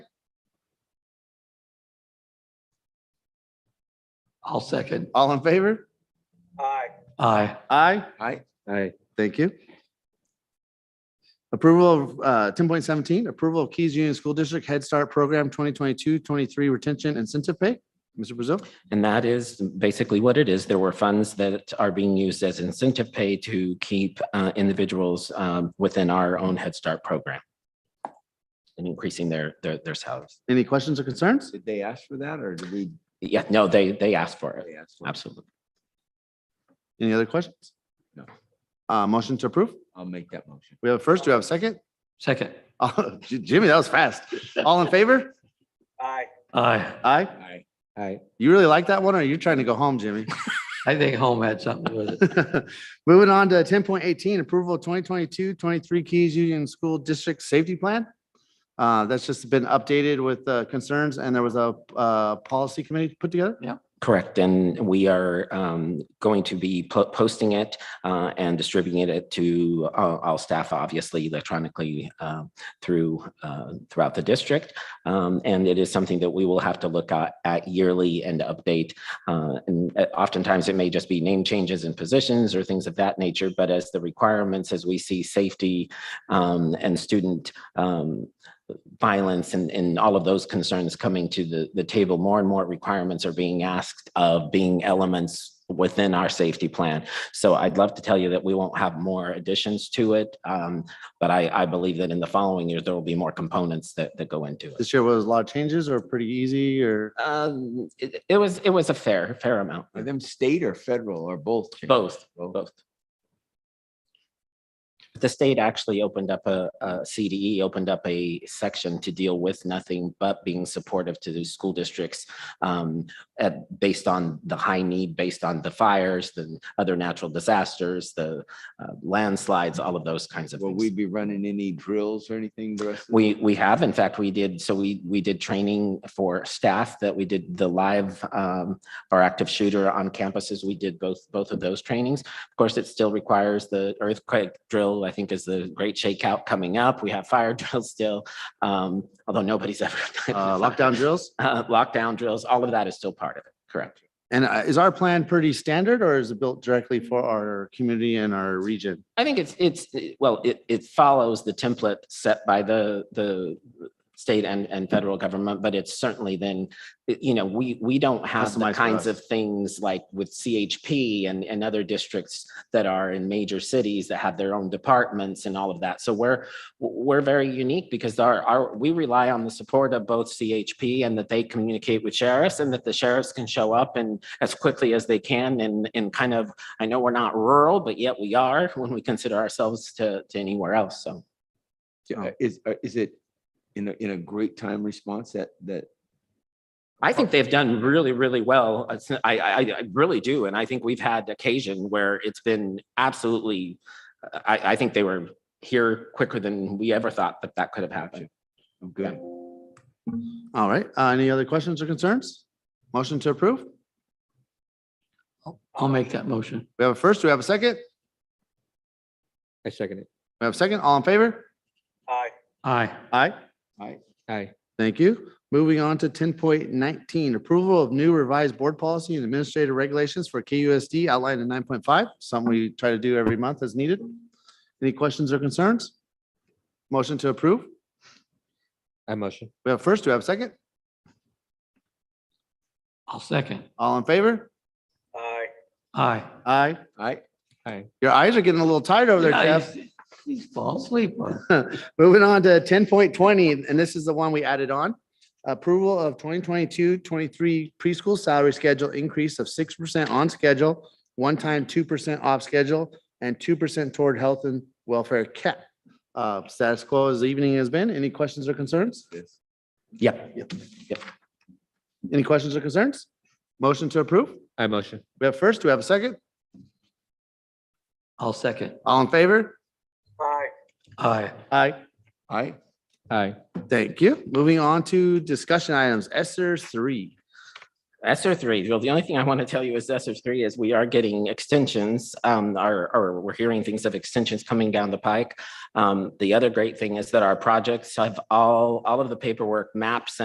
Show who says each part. Speaker 1: I'll second.
Speaker 2: All in favor?
Speaker 3: Aye.
Speaker 1: Aye.
Speaker 2: Aye.
Speaker 4: Aye.
Speaker 2: Aye. Thank you. Approval of uh, ten point seventeen, approval of Keys Union School District Head Start Program 2022-23 retention incentive pay. Mr. Brazil?
Speaker 5: And that is basically what it is. There were funds that are being used as incentive pay to keep uh, individuals um, within our own Head Start program and increasing their, their, their salaries.
Speaker 2: Any questions or concerns?
Speaker 4: Did they ask for that or did we?
Speaker 5: Yeah, no, they, they asked for it.
Speaker 4: they asked for it?
Speaker 5: Absolutely.
Speaker 2: Any other questions?
Speaker 4: No.
Speaker 2: Uh, motion to approve?
Speaker 4: I'll make that motion.
Speaker 2: We have a first, do we have a second?
Speaker 1: Second.
Speaker 2: Oh, J- Jimmy, that was fast. All in favor?
Speaker 3: Aye.
Speaker 1: Aye.
Speaker 2: Aye.
Speaker 4: Aye. Aye.
Speaker 2: You really like that one or are you trying to go home, Jimmy?
Speaker 1: I think home had something to do with it.
Speaker 2: Moving on to ten point eighteen, approval of 2022-23 Keys Union School District Safety Plan. Uh, that's just been updated with uh, concerns and there was a, uh, policy committee put together.
Speaker 5: Correct. And we are um, going to be po- posting it uh, and distributing it to all all staff, obviously electronically um, through, uh, throughout the district. Um, And it is something that we will have to look at at yearly and update. Uh, And uh, oftentimes it may just be name changes in positions or things of that nature, but as the requirements, as we see safety um, and student um, violence and, and all of those concerns coming to the, the table. More and more requirements are being asked of being elements within our safety plan. So I'd love to tell you that we won't have more additions to it. um, but I, I believe that in the following years, there will be more components that, that go into it.
Speaker 2: This year was a lot of changes or pretty easy or,
Speaker 5: Um, it, it was, it was a fair, fair amount,
Speaker 4: Are them state or federal or both?
Speaker 5: both,
Speaker 4: Both.
Speaker 5: both. The state actually opened up a, a CDE, opened up a section to deal with nothing but being supportive to the school districts um, at, based on the high need, based on the fires, the other natural disasters, the uh, landslides, all of those kinds of
Speaker 4: Will
Speaker 5: things.
Speaker 4: we be running any drills or anything the rest? of the-
Speaker 5: We, we have, in fact, we did, so we, we did training for staff that we did the live, um, our active shooter on campuses. We did both, both of those trainings. Of course, it still requires the earthquake drill, I think is the great shakeout coming up. We have fire drills still, um, although nobody's ever. done
Speaker 2: uh,
Speaker 5: fire-
Speaker 2: lockdown drills?
Speaker 5: Uh, lockdown drills, all of that is still part of it, correct?
Speaker 2: And uh, is our plan pretty standard or is it built directly for our community and our region?
Speaker 5: I think it's, it's, well, it, it follows the template set by the, the state and, and federal government, but it's certainly then, you know, we, we don't have
Speaker 2: Customized
Speaker 5: the
Speaker 2: for us.
Speaker 5: kinds of things like with CHP and, and other districts that are in major cities that have their own departments and all of that. So we're, we're very unique because our, our, we rely on the support of both CHP and that they communicate with sheriffs and that the sheriffs can show up and as quickly as they can and, and kind of I know we're not rural, but yet we are when we consider ourselves to, to anywhere else. So
Speaker 4: Uh, Is, uh, is it in a, in a great time response that, that?
Speaker 5: I think they've done really, really well. It's- I, I, I really do. And I think we've had occasion where it's been absolutely, I, I think they were here quicker than we ever thought that that could have happened.
Speaker 4: I'm good.
Speaker 2: All right, uh, any other questions or concerns? Motion to approve?
Speaker 1: I'll make that motion.
Speaker 2: We have a first, do we have a second?
Speaker 6: I second it.
Speaker 2: We have a second, all in favor?
Speaker 3: Aye.
Speaker 1: Aye.
Speaker 2: Aye.
Speaker 6: Aye.
Speaker 2: Thank you. Moving on to ten point nineteen, approval of new revised board policy and administrative regulations for KUSD outlined in nine point five, something we try to do every month as needed. Any questions or concerns? Motion to approve.
Speaker 6: I motion.
Speaker 2: We have first, do we have second?
Speaker 1: I'll second.
Speaker 2: All in favor?
Speaker 3: Aye.
Speaker 1: Aye.
Speaker 2: Aye.
Speaker 4: Aye.
Speaker 2: Your eyes are getting a little tired over there,
Speaker 1: Yeah,
Speaker 2: Jeff.
Speaker 1: he's- He's fall asleep. on it.
Speaker 2: Moving on to ten point twenty, and this is the one we added on. Approval of 2022-23 preschool salary schedule increase of six percent on schedule, one time two percent off schedule, and two percent toward health and welfare cap. Uh, status quo as the evening has been. Any questions or concerns?
Speaker 4: Yes.
Speaker 5: Yep.
Speaker 2: Any questions or concerns? Motion to approve?
Speaker 6: I motion.
Speaker 2: We have first, do we have a second?
Speaker 1: I'll second.
Speaker 2: All in favor?
Speaker 3: Aye.
Speaker 1: Aye.
Speaker 2: Aye.
Speaker 4: Aye.
Speaker 6: Aye.
Speaker 2: Thank you. Moving on to discussion items, Esther three.
Speaker 5: ESER three, well, the only thing I want to tell you is ESER three is we are getting extensions, um, or, or we're hearing things of extensions coming down the pike. Um, the other great thing is that our projects have all, all of the paperwork maps